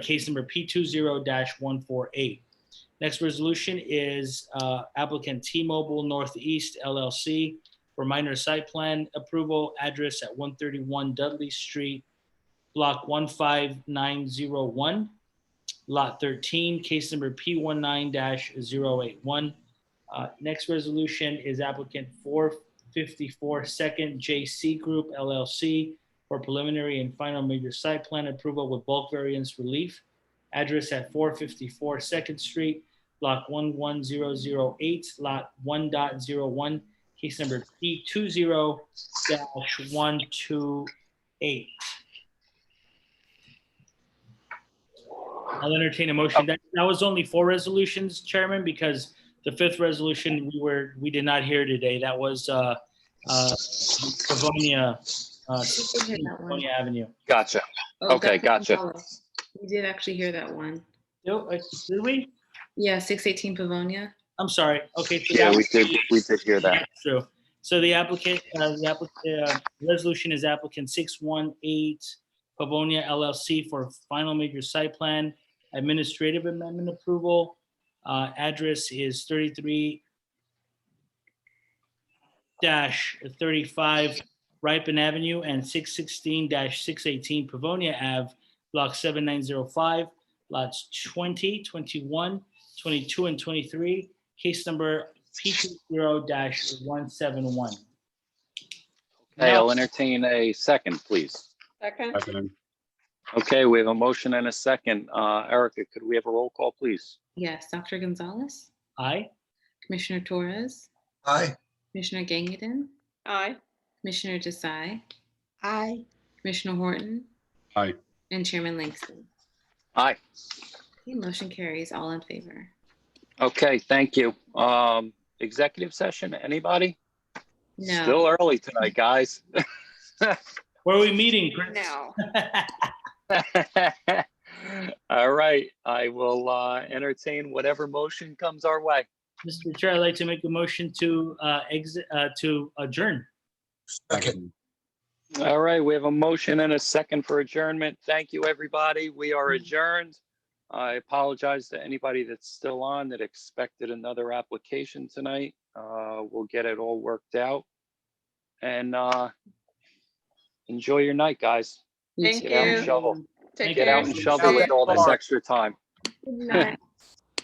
case number P20-148. Next resolution is uh, applicant T-Mobile Northeast LLC for minor site plan approval, address at 131 Dudley Street, Block 15901, Lot 13, case number P19-081. Uh, Next resolution is applicant 454 Second JC Group LLC for preliminary and final major site plan approval with bulk variance relief. Address at 454 Second Street, Block 11008, Lot 1.01, case number P20-128. I'll entertain a motion. That that was only four resolutions, Chairman, because the fifth resolution, we were, we did not hear today. That was uh, uh, Livonia, uh, We did hear that one. Livonia Avenue. Gotcha. Oh, Okay, Dr. gotcha. Gonzalez. We did actually hear that one. No, uh, did we? Yeah, 618 Pavonia. I'm sorry. Okay. so Yeah, that- we did, we did hear that. that's True. So the applicant, uh, the applicant, uh, resolution is applicant six one eight Pavonia LLC for final major site plan, administrative amendment approval. Uh, address is thirty-three dash thirty-five Ripon Avenue and six sixteen dash six eighteen Pavonia Ave, block seven nine zero five, lots 20, 21, 22, and twenty-three. Case number P two zero dash one seven one. Hey, I'll entertain a second, please. Second. Second. Okay, we have a motion and a second. Uh, Erica, could we have a roll call, please? Yes, Dr. Gonzalez, Aye, Commissioner Torres, Aye. Commissioner Gangadin, Aye. Commissioner Desai, Aye. Commissioner Horton. Aye. And Chairman Langston. Aye. Okay, Motion carries all in favor. Okay, thank you. Um, executive session, anybody? No, Still early tonight, guys. where are we meeting, Chris? No. All right, I will, uh, entertain whatever motion comes our way. Mr. Chair, I'd like to make a motion to uh exit, uh to adjourn. Second. All right, we have a motion and a second for adjournment. Thank you, everybody. We are adjourned. I apologize to anybody that's still on that expected another application tonight. Uh, we'll get it all worked out. And, uh, enjoy your night, guys. you Thank too. Get out and you. shovel, Take Thank get care. out and shovel with all this extra time. Good night.